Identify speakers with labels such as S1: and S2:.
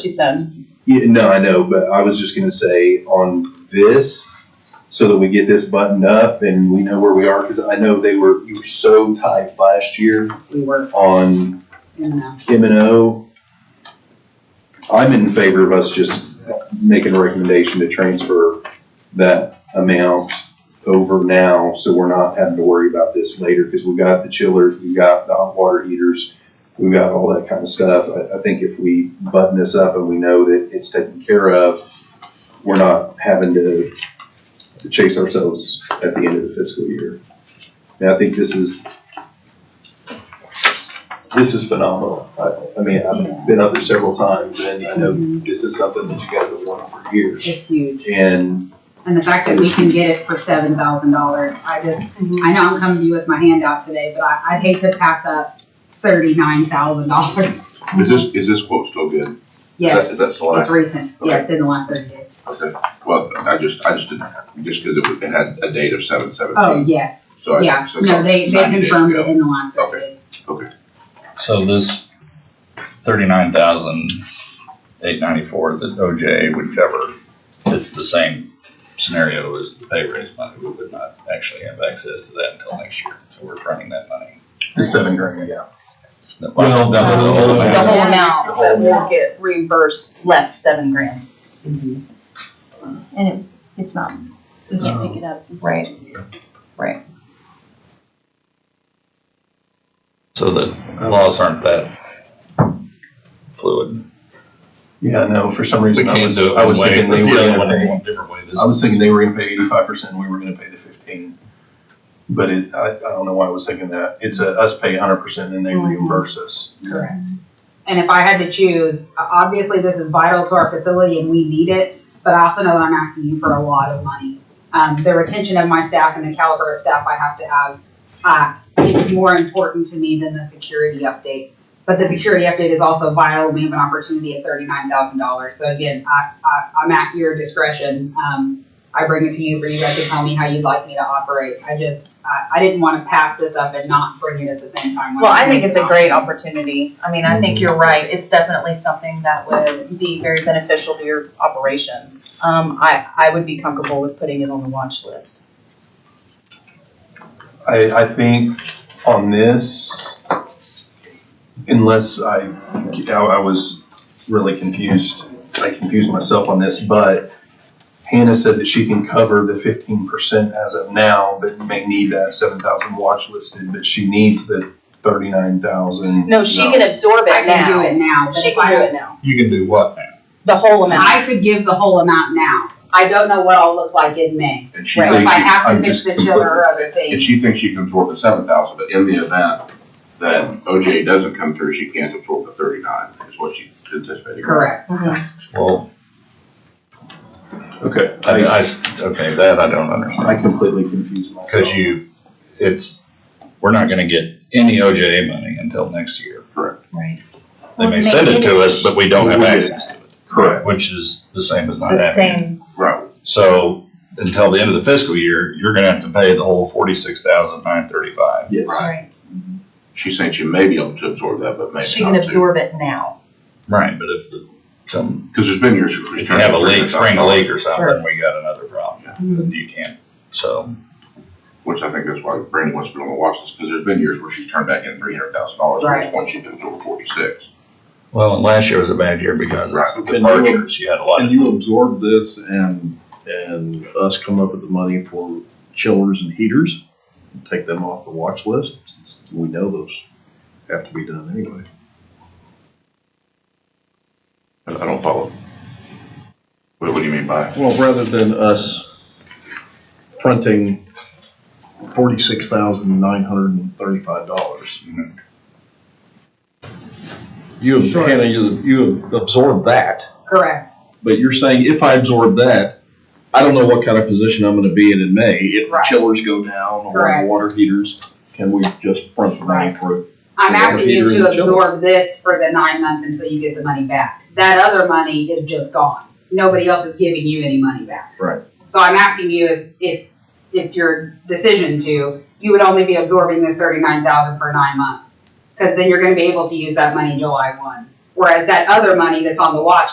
S1: she said.
S2: Yeah, no, I know, but I was just gonna say on this, so that we get this buttoned up and we know where we are, because I know they were, you were so tight last year
S1: We were,
S2: on
S1: you know,
S2: M and O. I'm in favor of us just making a recommendation to transfer that amount over now, so we're not having to worry about this later, because we've got the chillers, we've got the hot water heaters, we've got all that kind of stuff. I, I think if we button this up and we know that it's taken care of, we're not having to chase ourselves at the end of the fiscal year. And I think this is, this is phenomenal. I, I mean, I've been up there several times, and I know this is something that you guys have wanted for years.
S1: it's huge.
S2: And
S3: And the fact that we can get it for seven thousand dollars, I just, I know I'm coming to you with my handout today, but I, I'd hate to pass up thirty-nine thousand dollars.
S4: Is this, is this quote still good? Is that- Is
S3: Yes,
S4: that still
S3: it's
S4: accurate?
S3: recent, yes, in the last thirty days.
S4: Okay, well, I just, I just didn't, just because it was- it had a date of seven
S3: Oh,
S4: seventeen.
S3: yes,
S4: So I-
S3: yeah,
S4: so it's
S3: no, they, they
S4: 90 days
S3: confirmed
S4: ago.
S3: it in the last thirty
S4: Okay.
S3: days.
S5: So this thirty-nine thousand eight ninety-four, the OJ, whichever, it's the same scenario as the pay raise money. We would not actually have access to that until next year, so we're fronting that money.
S2: the seven grand, yeah.
S5: The-
S2: Well,
S5: the whole
S2: the whole
S5: amount.
S1: The whole
S6: Yeah.
S1: amount
S2: The whole
S1: that will
S2: amount.
S1: get reimbursed less seven grand.
S6: And it, it's not, we can't make it up. Right.
S5: So the laws aren't that fluid.
S2: Yeah, no, for some
S5: We
S2: reason, I
S5: can't
S2: was,
S5: do it
S2: I
S5: one
S2: was
S5: way,
S2: thinking
S5: but
S2: they
S5: the
S2: were
S5: other
S2: gonna
S5: one
S2: pay.
S5: went a different way. This
S2: I was
S5: is-
S2: thinking they were gonna pay eighty-five percent, we were gonna pay the fifteen. But it, I, I don't know why I was thinking that. It's a, us pay hundred percent and they reimburse us.
S3: Correct. And if I had to choose, o- obviously this is vital to our facility and we need it, but I also know that I'm asking you for a lot of money. Um, the retention of my staff and the caliber of staff I have to have, uh, is more important to me than the security update. But the security update is also vital. We have an opportunity at thirty-nine thousand dollars. So again, I, I, I'm at your discretion. Um, I bring it to you for you guys to tell me how you'd like me to operate. I just, I, I didn't wanna pass this up and not bring it at the same time. when
S1: Well, I think
S3: bring
S1: it's a
S3: it
S1: great
S3: up.
S1: opportunity. I mean, I think you're right. It's definitely something that would be very beneficial to your operations. Um, I, I would be comfortable with putting it on the watch list.
S2: I, I think on this, unless I, I I was really confused, I confused myself on this, but Hannah said that she can cover the fifteen percent as of now, but may need that seven thousand watch listed, but she needs the thirty-nine thousand.
S1: No, she can absorb
S3: I
S1: it
S3: can do it
S1: now.
S3: now, but
S1: She
S3: if I-
S1: can do it now.
S5: You can do what now?
S1: The whole amount.
S3: I could give the whole amount now. I don't know what I'll look like in May.
S4: And she
S3: So if
S4: thinks
S3: I
S4: she,
S3: have to
S4: I'm
S3: fix
S4: just
S3: the chiller
S4: completely,
S3: or other
S4: and
S3: things.
S4: she thinks she can absorb the seven thousand, but in the event that OJ doesn't come through, she can't absorb the thirty-nine, is what she anticipated.
S3: Correct.
S5: Well,
S2: Okay,
S5: I,
S2: I,
S5: I, okay, that I don't understand.
S2: I completely confused myself.
S5: Because you, it's, we're not gonna get any OJA money until next year.
S1: Right.
S5: They
S6: Well,
S5: may send it to us, but we don't have
S2: Maybe.
S5: access to it,
S2: Correct.
S5: which is the same as
S1: The
S5: not having it.
S1: same,
S4: Right,
S5: So until the end of the fiscal year, you're gonna have to pay the whole forty-six thousand nine thirty-five.
S2: Yes.
S1: right.
S4: she's saying she may be able to absorb that, but maybe not.
S1: She can absorb it now.
S5: Right, but if the, some,
S4: Because there's been years.
S5: if you have a leak, spring a leak or
S1: Sure.
S5: something, we got another problem, then you can't, so.
S4: Which I think that's why Brandy wants to put on the watch list, because there's been years where she's turned back in three hundred thousand dollars, and
S3: Right.
S4: this one she did over forty-six.
S5: Well, and last year was a bad year because
S4: Right.
S5: of departures, you had a lot
S7: Can
S5: of,
S7: you absorb this and, and us come up with the money for chillers and heaters? Take them off the watch list, since we know those have to be done anyway.
S4: I I don't follow. What, what do you mean by?
S7: Well, rather than us fronting forty-six thousand nine hundred and thirty-five dollars. You, Hannah, you, you absorb that.
S3: Correct.
S7: But you're saying if I absorb that, I don't know what kind of position I'm gonna be in in May. If
S3: Right.
S7: chillers go down or
S3: Correct.
S7: water heaters, can we just front the money for it?
S3: I'm
S7: Yeah,
S3: asking you
S7: Peter
S3: to
S7: and Jill.
S3: absorb this for the nine months until you get the money back. That other money is just gone. Nobody else is giving you any money back.
S7: Right.
S3: So I'm asking you if, if it's your decision to, you would only be absorbing this thirty-nine thousand for nine months. Cause then you're gonna be able to use that money July one. Whereas that other money that's on the watch